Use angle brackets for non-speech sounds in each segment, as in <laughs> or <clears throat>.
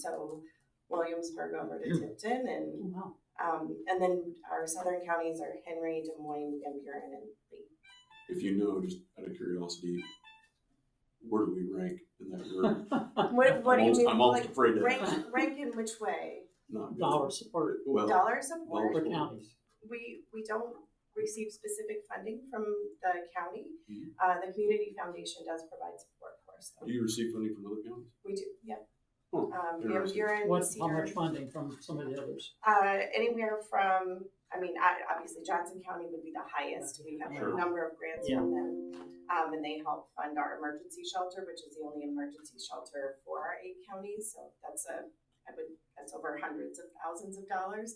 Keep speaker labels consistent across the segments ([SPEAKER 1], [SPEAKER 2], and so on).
[SPEAKER 1] so Williamsburg over to
[SPEAKER 2] Hmm.
[SPEAKER 1] Tipton and,
[SPEAKER 3] Wow.
[SPEAKER 1] um, and then our southern counties are Henry, Des Moines, Van Buren, and Lee.
[SPEAKER 3] <laughs>
[SPEAKER 2] If you know, just out of curiosity, where do we rank in that group?
[SPEAKER 1] What, <laughs> what
[SPEAKER 2] I'm
[SPEAKER 1] do you
[SPEAKER 2] almost-
[SPEAKER 1] mean?
[SPEAKER 2] I'm almost
[SPEAKER 1] Like,
[SPEAKER 2] afraid to,
[SPEAKER 1] Rank, rank in which way?
[SPEAKER 2] not.
[SPEAKER 3] Dollar support
[SPEAKER 2] Well,
[SPEAKER 1] Dollar support?
[SPEAKER 3] for counties.
[SPEAKER 1] we, we don't receive specific funding from the county.
[SPEAKER 2] Mhm.
[SPEAKER 1] Uh, the community foundation does provide support for us. though.
[SPEAKER 2] do you receive funding from other counties?
[SPEAKER 1] We do, yep.
[SPEAKER 2] Hmm,
[SPEAKER 1] Um, Van
[SPEAKER 2] interesting.
[SPEAKER 1] Buren,
[SPEAKER 3] What, how
[SPEAKER 1] Cedar,
[SPEAKER 3] much funding from some of the others?
[SPEAKER 1] uh, anywhere from, I mean, I, obviously Johnson County would be the highest. We have
[SPEAKER 2] Sure.
[SPEAKER 1] a number of grants from them. Um, and they help fund our emergency shelter, which is the only emergency shelter for our eight counties. So that's a, I would, that's over hundreds of thousands of dollars.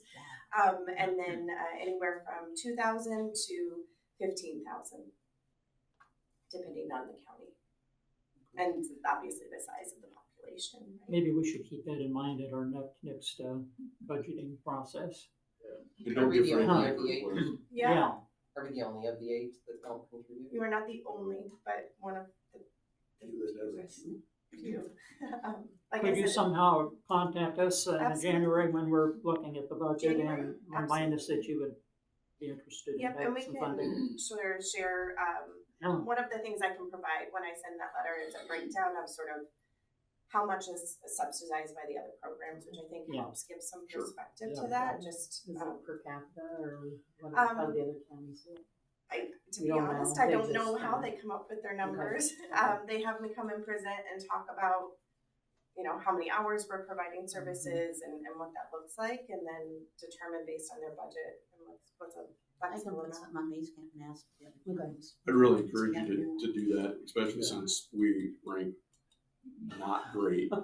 [SPEAKER 1] Um, and then uh, anywhere from two thousand to fifteen thousand, depending on the county. And obviously the size of the population. right?
[SPEAKER 3] Maybe we should keep that in mind at our next, next uh, budgeting process.
[SPEAKER 2] And
[SPEAKER 4] Are
[SPEAKER 2] don't
[SPEAKER 4] we
[SPEAKER 2] give
[SPEAKER 4] the
[SPEAKER 2] Frank
[SPEAKER 4] only
[SPEAKER 2] that
[SPEAKER 4] of the eight?
[SPEAKER 1] <laughs>
[SPEAKER 2] group was.
[SPEAKER 1] Yeah.
[SPEAKER 4] Are we the only of the eight that don't contribute?
[SPEAKER 1] You are not the only, but one of the. the
[SPEAKER 2] Few that doesn't.
[SPEAKER 1] few. Few. <laughs> Um, Like
[SPEAKER 3] Could
[SPEAKER 1] I
[SPEAKER 3] you
[SPEAKER 1] said,
[SPEAKER 3] somehow contact us uh, in
[SPEAKER 1] Absolutely.
[SPEAKER 3] January when we're looking at the budget and
[SPEAKER 1] January,
[SPEAKER 3] remind us that you would be interested in
[SPEAKER 1] Yep, and
[SPEAKER 3] having
[SPEAKER 1] we
[SPEAKER 3] some funding?
[SPEAKER 1] can share, share, um,
[SPEAKER 3] Yeah.
[SPEAKER 1] one of the things I can provide when I send that letter is a breakdown of sort of how much is subsidized by the other programs, which I think
[SPEAKER 3] Yeah.
[SPEAKER 1] helps give some
[SPEAKER 2] Sure.
[SPEAKER 1] perspective
[SPEAKER 3] Yeah.
[SPEAKER 1] to that, just,
[SPEAKER 5] Is
[SPEAKER 1] um,
[SPEAKER 5] it per capita or what
[SPEAKER 1] Um,
[SPEAKER 5] how the other counties do? it?
[SPEAKER 1] I, to
[SPEAKER 5] We
[SPEAKER 1] be
[SPEAKER 5] don't know.
[SPEAKER 1] honest, I
[SPEAKER 5] They
[SPEAKER 1] don't know
[SPEAKER 5] just,
[SPEAKER 1] how
[SPEAKER 5] uh,
[SPEAKER 1] they come up with their numbers. Um, they have me come and present and talk about, you know, how many hours we're providing
[SPEAKER 6] Mm-hmm.
[SPEAKER 1] services and, and what that looks like, and then determine based on their budget and what's, what's a
[SPEAKER 6] I can
[SPEAKER 1] flexible
[SPEAKER 6] put
[SPEAKER 1] <laughs> amount.
[SPEAKER 6] something on these and ask the other counties.
[SPEAKER 2] I'd really encourage you to, to do that, especially since we rank not
[SPEAKER 1] <laughs>
[SPEAKER 2] great when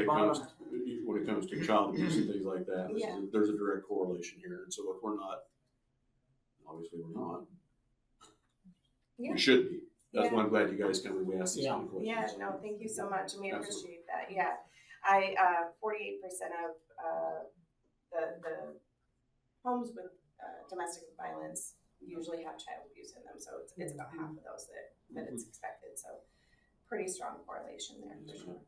[SPEAKER 2] it comes, when it comes to child abuse and things like that. This is-
[SPEAKER 1] Yeah.
[SPEAKER 2] There's a direct correlation here, and so if we're not, obviously we're not,
[SPEAKER 1] Yeah.
[SPEAKER 2] we should be. That's
[SPEAKER 1] Yeah.
[SPEAKER 2] why I'm glad you guys come and we ask these kind of
[SPEAKER 1] Yeah,
[SPEAKER 2] questions.
[SPEAKER 1] no, thank you so much, and we
[SPEAKER 2] Absolutely.
[SPEAKER 1] appreciate that, yeah. I, uh, forty-eight percent of, uh, the, the homes with, uh, domestic violence usually have child abuse in them, so it's, it's about
[SPEAKER 6] Mm-hmm.
[SPEAKER 1] half of those that, that it's expected, so pretty strong correlation there, for sure.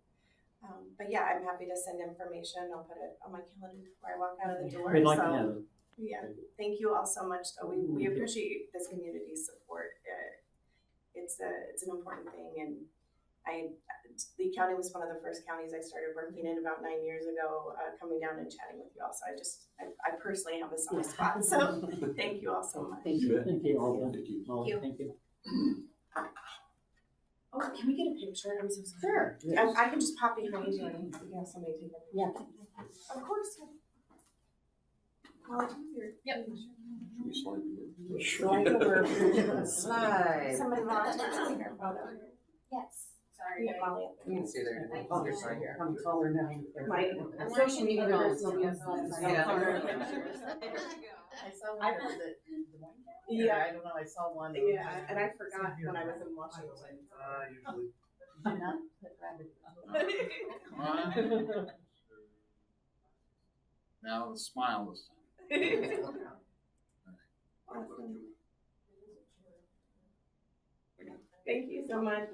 [SPEAKER 1] Um, but yeah, I'm happy to send information, I'll put it on my calendar before I walk out of the door,
[SPEAKER 3] We'd like to
[SPEAKER 1] so.
[SPEAKER 3] have it.
[SPEAKER 1] Yeah, thank you all so much, though, we, we
[SPEAKER 3] Mhm.
[SPEAKER 1] appreciate this community's support. Uh, It's a, it's an important thing, and I, Lee County was one of the first counties I started working in about nine years ago, uh, coming down and chatting with you all, so I just, I, I personally have a soft spot, so thank you all so much.
[SPEAKER 6] Thank
[SPEAKER 2] You
[SPEAKER 6] you.
[SPEAKER 2] bet.
[SPEAKER 3] Thank you, Alda.
[SPEAKER 2] Thank you.
[SPEAKER 3] Molly,
[SPEAKER 1] you.
[SPEAKER 3] Thank you.
[SPEAKER 1] Oh, can we get a picture? I'm so sorry.
[SPEAKER 5] Sure.
[SPEAKER 1] I, I can just pop behind you and you can have somebody take it.
[SPEAKER 6] Yeah.
[SPEAKER 1] Of course. yeah. Well, you're-
[SPEAKER 2] Should we slide you in?
[SPEAKER 5] Slide over.
[SPEAKER 1] <laughs>
[SPEAKER 4] Slide.
[SPEAKER 1] Somebody <laughs> lost their photo.
[SPEAKER 7] Yes.
[SPEAKER 1] Sorry, Molly.
[SPEAKER 4] You can see there,
[SPEAKER 5] Oh,
[SPEAKER 4] you're fine here.
[SPEAKER 5] I'm taller now.
[SPEAKER 1] Right.
[SPEAKER 5] Social media
[SPEAKER 6] goes.
[SPEAKER 5] <laughs>
[SPEAKER 6] <laughs>
[SPEAKER 5] I saw one that was at Des Moines County, or
[SPEAKER 1] Yeah.
[SPEAKER 5] I don't know, I saw one. that was-
[SPEAKER 1] Yeah, and I forgot when I was in Washington.
[SPEAKER 5] Did you not put rabbit-
[SPEAKER 1] <laughs>
[SPEAKER 8] Come on. Now smile this time.
[SPEAKER 1] Awesome. <laughs> Thank you so much.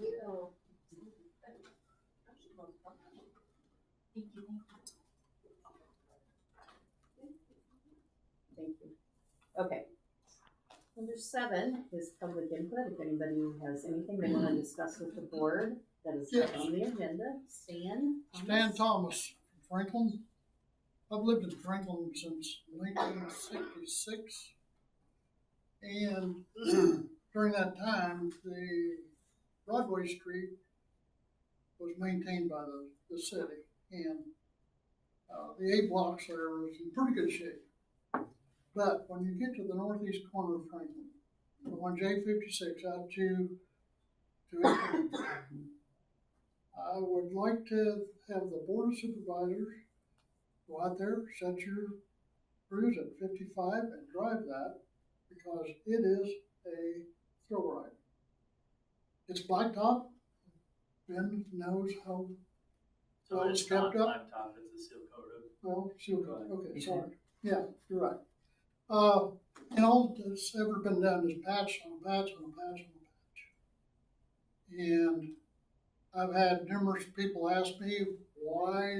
[SPEAKER 5] Thank you. Okay. Number seven is public input. If anybody has anything they want to discuss with the board that is not on the agenda, Stan.
[SPEAKER 8] Stan Thomas, from Franklin. I've lived in Franklin since nineteen sixty-six. And <clears throat> during that time, the Broadway Street was maintained by the, the city. And, uh, the A blocks there was in pretty good shape. But when you get to the northeast corner of Franklin, from one J fifty-six out to, to 8th, I would like to have the board of supervisors go out there, set your cruise at fifty-five and drive that because it is a thrill ride. It's blacktop. Ben knows how
[SPEAKER 9] So Oh, it's not
[SPEAKER 8] Stepped up.
[SPEAKER 9] blacktop, it's a seal coat road.
[SPEAKER 8] well, sure,
[SPEAKER 9] Right.
[SPEAKER 8] okay, sorry, yeah, you're right. Uh, and all that's ever been done is patch on patch on patch on patch. And I've had numerous people ask me why